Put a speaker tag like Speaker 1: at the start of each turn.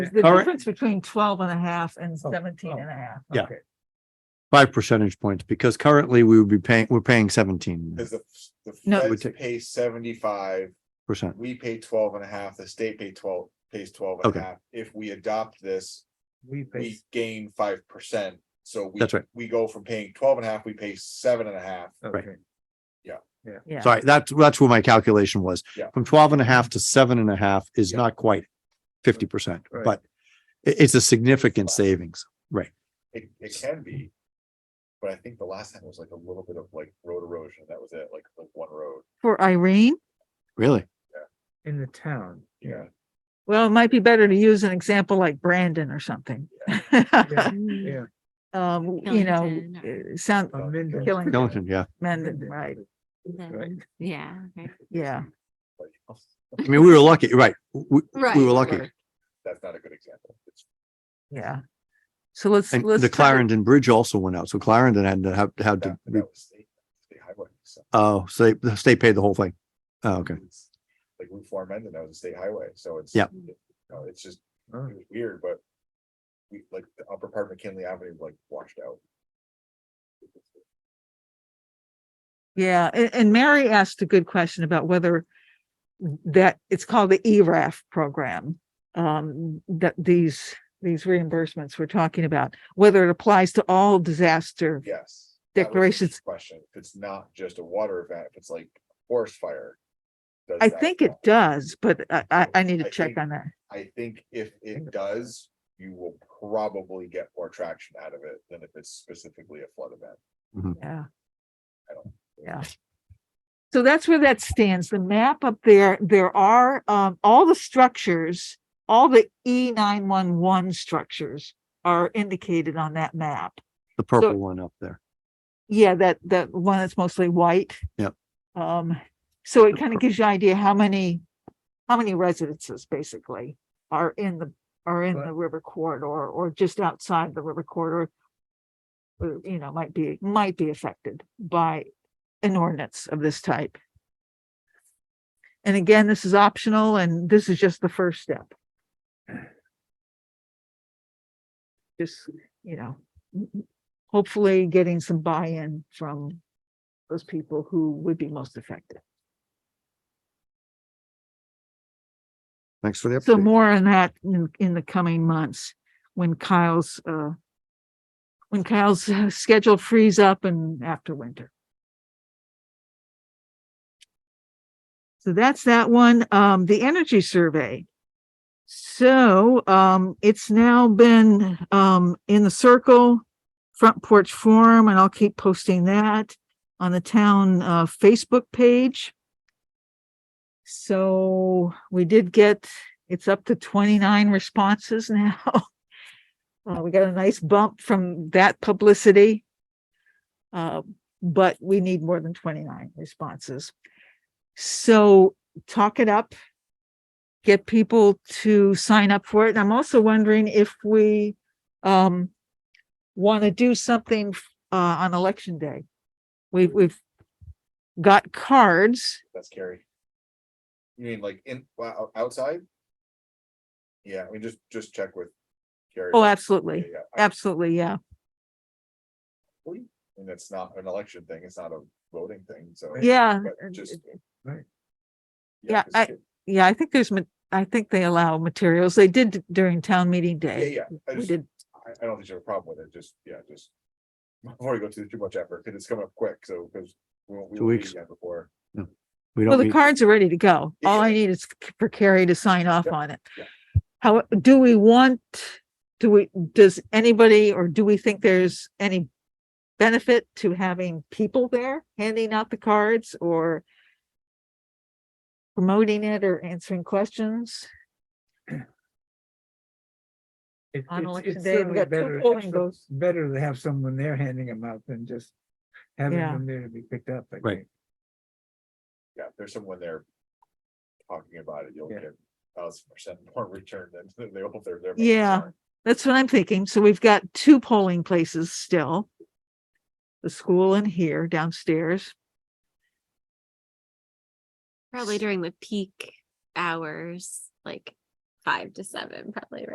Speaker 1: The
Speaker 2: All right.
Speaker 1: difference between 12 and a half and
Speaker 3: Oh,
Speaker 1: 17
Speaker 3: oh.
Speaker 1: and a half.
Speaker 2: Yeah.
Speaker 3: Okay.
Speaker 2: five percentage points, because currently we would be paying, we're paying seventeen
Speaker 4: Cause the, the
Speaker 1: No.
Speaker 2: Would
Speaker 4: feds
Speaker 2: take-
Speaker 4: pay seventy-five,
Speaker 2: percent.
Speaker 4: we pay twelve and a half, the state pay twelve, pays twelve and
Speaker 2: Okay.
Speaker 4: a half. If we adopt this,
Speaker 3: We pay,
Speaker 4: we gain five percent, so we.
Speaker 2: That's right.
Speaker 4: We go from paying twelve and a half, we pay seven and a half,
Speaker 2: Right.
Speaker 3: okay,
Speaker 1: Yeah.
Speaker 2: Sorry, that's, that's what my calculation was.
Speaker 4: Yeah.
Speaker 2: From twelve and a half to seven and a half is
Speaker 4: Yeah.
Speaker 2: not quite fifty percent,
Speaker 3: Right.
Speaker 2: but i- it's a significant savings.
Speaker 4: it, it can be. But I think the last time was like a little bit of like road erosion, that was it, like, like one road,
Speaker 1: For Irene,
Speaker 2: Really?
Speaker 3: in the town,
Speaker 4: yeah.
Speaker 3: yeah.
Speaker 1: well, it might be better to use an example like Brandon or something.
Speaker 3: Yeah, Yeah,
Speaker 1: Um, you know,
Speaker 5: Killington
Speaker 1: uh, sound,
Speaker 3: a
Speaker 2: Oh.
Speaker 3: minute.
Speaker 1: Killing-
Speaker 2: Skeleton, yeah.
Speaker 1: Mendon, right,
Speaker 3: Right.
Speaker 5: Yeah. right.
Speaker 1: yeah.
Speaker 4: like,
Speaker 2: I mean, we were lucky, right? We, we were lucky.
Speaker 4: That's not a good example. It's-
Speaker 1: Yeah. So let's,
Speaker 2: And
Speaker 1: let's. try
Speaker 2: the
Speaker 1: to-
Speaker 2: Clarendon Bridge also went out. So Clarendon had to have, had
Speaker 4: that-
Speaker 2: to,
Speaker 4: that was state- state highway, so
Speaker 2: oh, so they, the state paid the whole thing. Oh, okay.
Speaker 4: it's Like Route Four Mendon, that was a state highway, so it's.
Speaker 2: Yeah.
Speaker 4: you know, it's just
Speaker 3: Oh,
Speaker 4: it was weird, but we, like, the upper part of McKinley Avenue, like, washed out.
Speaker 1: Yeah, a- and, Mary asked a good question about whether that, it's called the E ERAF program. Um, that these, these reimbursements we're talking about, whether it applies to all disaster.
Speaker 4: Yes. that was the
Speaker 1: Declarations.
Speaker 4: Question, if it's not just a water event, if it's like forest fire. does
Speaker 1: I
Speaker 4: that
Speaker 1: think it
Speaker 4: count?
Speaker 1: does, but I, I, I need
Speaker 4: I
Speaker 1: to check
Speaker 4: think-
Speaker 1: on that.
Speaker 4: I think if it does, you will probably get more traction out of it than if it's specifically a flood event.
Speaker 1: Yeah.
Speaker 4: I don't-
Speaker 1: Yeah. So that's where that stands. The map up there, there are, um, all the structures, all the E nine one one structures are indicated on that map.
Speaker 2: The purple one up there.
Speaker 1: Yeah, that, that one that's mostly white.
Speaker 2: Yep.
Speaker 1: Um, so it kind of gives you an idea how many, how many residences basically are in the, are in
Speaker 3: Right.
Speaker 1: the river corridor or just outside the river corridor. Or, you know, might be, might be affected by an ordinance of this type. And again, this is optional and this is just the first step. Just, you know, m- m- hopefully getting some buy-in from those people who would be most affected.
Speaker 2: Thanks for the
Speaker 1: So
Speaker 2: update.
Speaker 1: more on that in, in the coming months when Kyle's, uh, when Kyle's uh, schedule frees up and after winter. So that's that one, um, the energy survey. So, um, it's now been, um, in the circle, front porch forum, and I'll keep posting that on the town, uh, Facebook page. So we did get, it's up to twenty-nine responses now. Uh, we got a nice bump from that publicity. Uh, but we need more than twenty-nine responses. So talk it up. Get people to sign up for it. And I'm also wondering if we, um, want to do something, uh, on election day. We've, we've got cards.
Speaker 4: That's scary. You mean like in, wow, outside? Yeah, I mean, just, just check with. Gary.
Speaker 1: Oh,
Speaker 4: Yeah,
Speaker 1: absolutely.
Speaker 4: yeah, I-
Speaker 1: Absolutely, yeah.
Speaker 4: And it's not an election thing, it's not a voting thing, so.
Speaker 1: Yeah,
Speaker 4: but
Speaker 1: and-
Speaker 4: just-
Speaker 3: Right.
Speaker 1: Yeah,
Speaker 4: 'cause
Speaker 1: I-
Speaker 4: it-
Speaker 1: yeah, I think there's, ma- I think they allow materials. They did d- during town meeting
Speaker 4: Yeah,
Speaker 1: day.
Speaker 4: yeah, I
Speaker 1: We
Speaker 4: just,
Speaker 1: did,
Speaker 4: I, I don't think you have a problem with it, just, yeah, just. Before we go to too much effort, because it's coming up quick, so, because. we won't- we
Speaker 2: Two
Speaker 4: won't meet
Speaker 2: weeks.
Speaker 4: again Before.
Speaker 2: We
Speaker 1: well,
Speaker 2: don't
Speaker 1: the
Speaker 2: need,
Speaker 1: cards are ready to go. All I
Speaker 4: Yeah.
Speaker 1: need is c- for Carrie to sign off
Speaker 4: Yeah,
Speaker 1: on it.
Speaker 4: yeah.
Speaker 1: How, do we want, do we, does anybody, or do we think there's any benefit to having people there handing out the cards or promoting it or answering questions?
Speaker 3: It-
Speaker 1: On
Speaker 3: it's-
Speaker 1: election
Speaker 3: it's
Speaker 1: day, we
Speaker 3: certainly
Speaker 1: got two
Speaker 3: better to
Speaker 1: polling
Speaker 3: have some-
Speaker 1: goes.
Speaker 3: Better to have someone there handing them out than just having
Speaker 1: Yeah.
Speaker 3: them there to be picked up. I
Speaker 2: Right.
Speaker 3: think.
Speaker 4: Yeah, if there's someone there. Talking about it, you'll
Speaker 3: Yeah.
Speaker 4: get thousand percent more return than- than they hope they're there.
Speaker 1: Yeah. That's what I'm thinking. So we've got two polling places still. The school and here downstairs.
Speaker 5: Probably during the peak hours, like five to seven, probably, right?